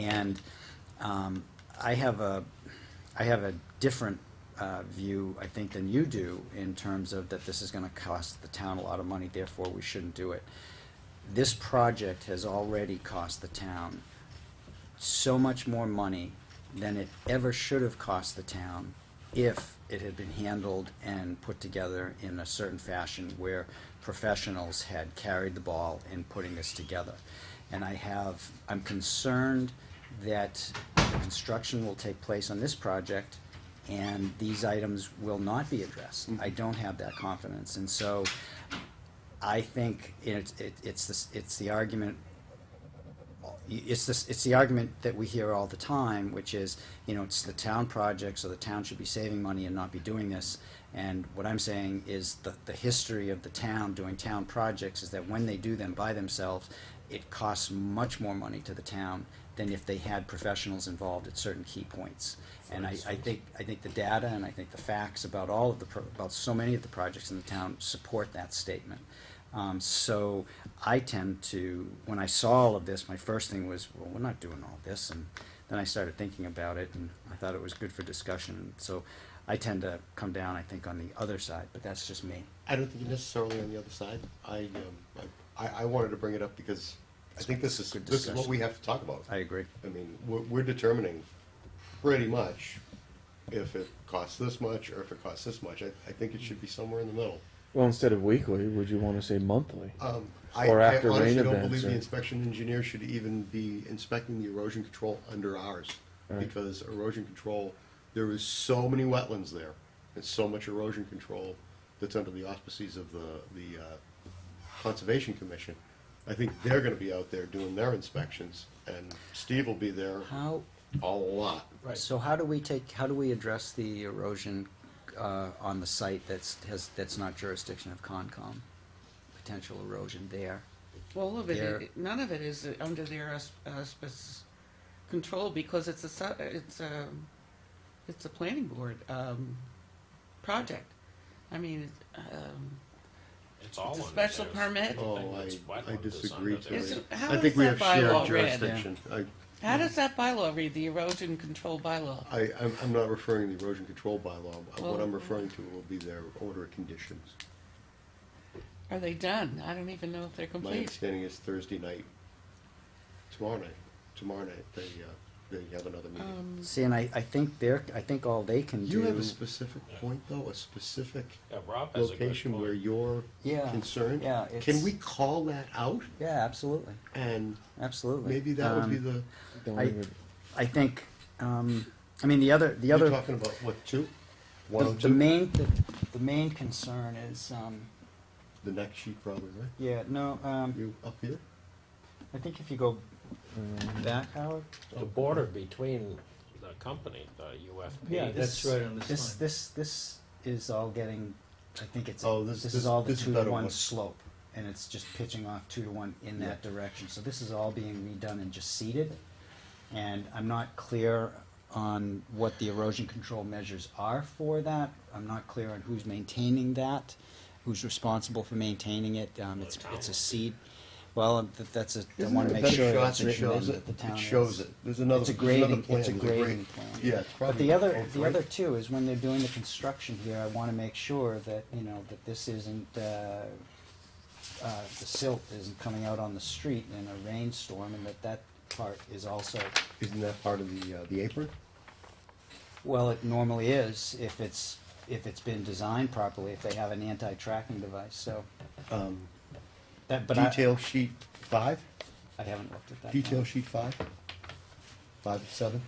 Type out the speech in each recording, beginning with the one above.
And um, I have a, I have a different uh, view, I think, than you do in terms of that this is gonna cost the town a lot of money, therefore we shouldn't do it. This project has already cost the town so much more money than it ever should have cost the town if it had been handled and put together in a certain fashion where professionals had carried the ball in putting this together. And I have, I'm concerned that the construction will take place on this project and these items will not be addressed. I don't have that confidence. And so I think it's, it- it's, this- it's the argument it's this, it's the argument that we hear all the time, which is, you know, it's the town project, so the town should be saving money and not be doing this. And what I'm saying is the, the history of the town doing town projects is that when they do them by themselves, it costs much more money to the town than if they had professionals involved at certain key points. And I, I think, I think the data and I think the facts about all of the, pro- about so many of the projects in the town support that statement. Um, so I tend to, when I saw all of this, my first thing was, well, we're not doing all this. And then I started thinking about it and I thought it was good for discussion. So I tend to come down, I think, on the other side, but that's just me. I don't think you're necessarily on the other side. I, um, I- I, I wanted to bring it up because I think this is, Good this is what discussion. we have to talk about. I agree. I mean, we're, we're determining pretty much if it costs this much or if it costs this much. I, I think it should be somewhere in the middle. Well, instead of weekly, would you want to say monthly? Um, I, Or I after rain honestly don't events believe the or- inspection engineer should even be inspecting the erosion control under ours. Right. Because erosion control, there is so many wetlands there, and so much erosion control that's under the auspices of the, the, uh, Conservation Commission. I think they're gonna be out there doing their inspections, and Steve will be there How, a lot. so how do we take, how do we address the erosion, uh, on the site that's, has, that's not jurisdiction of Concom? Potential erosion there? Well, all of it, Their- it- none of it is under their uh, aus- auspices control because it's a, su- it's a, it's a planning board, um, project. I mean, um, It's all It's a under special theirs. permit. Oh, Everything that's I, I wetland is disagree, under Terry. theirs. Is it- how I is think we have that bylaw shared read? jurisdiction. I, how does that bylaw read, the erosion control bylaw? I, I'm, I'm not referring to the erosion control bylaw, Uh, what Well- Oh. I'm referring to will be their order of conditions. Are they done? I don't even know if they're My complete. understanding is Thursday night, tomorrow night, tomorrow night, they, uh, they have another meeting. Um, See, and I, I think they're, I think all they can do. Mm-hmm. You have a specific point though, a specific Yeah, Rob has a good location where point. you're Yeah, concerned? yeah, it's- Can we call that out Yeah, absolutely, and absolutely. maybe that would be Um, the, Don't I- even- I think, um, I mean, the other, the you're other. talking about what, two? The, One, oh the two, main, the, the main concern is, um, the next sheet probably, right? yeah, no, um, You up here? I think if you go back, Howard, The border between the company, the UFP. Yeah, this- that's right on this line. this, this, this is all getting, I think it's, Oh, this- this this- is all the this is two to better one one. slope. And it's just pitching off two to one in that direction, so this is all being redone and just seeded. And I'm not clear on what the erosion control measures are for that, I'm not clear on who's maintaining that, who's responsible for maintaining it, um, it's, it's a seed. Well, th- that's a, I Isn't wanna there a make better sure shot it's that written in shows that the town It is. shows it. There's another, It's a there's another grading, plan. it's a There's a grading grade. plan. Yeah, it's But probably the other, both, the right? other too is when they're doing the construction here, I wanna make sure that, you know, that this isn't, uh, uh, the silt isn't coming out on the street in a rainstorm and that that part is also, Isn't that part of the, uh, the apron? well, it normally is if it's, if it's been designed properly, if they have an anti-tracking device, so. Um, That, but I, Detail sheet five, I haven't looked at that. detail one. sheet five, five of seven.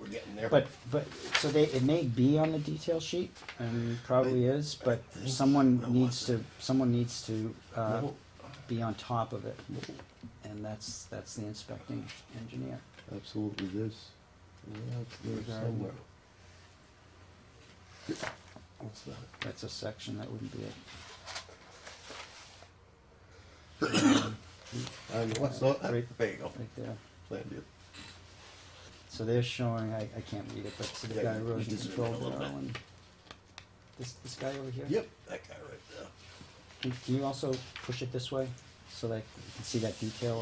We're getting there. But, but, so they, it may be on the detail sheet, and probably is, but someone needs to, someone needs to, uh, No. be on top of it. And that's, that's the inspecting engineer. Absolutely this. Yeah, it's there somewhere. What's that? That's a section, that wouldn't be it. Um, what's not, there Right. you go. Right there. Plan view. So they're showing, I, I can't read it, but so they've Yeah, got you erosion just zoom in control a little barrel bit. and this, this guy over here? Yep, that guy right there. Can can you also push it this way? so that you can see that detail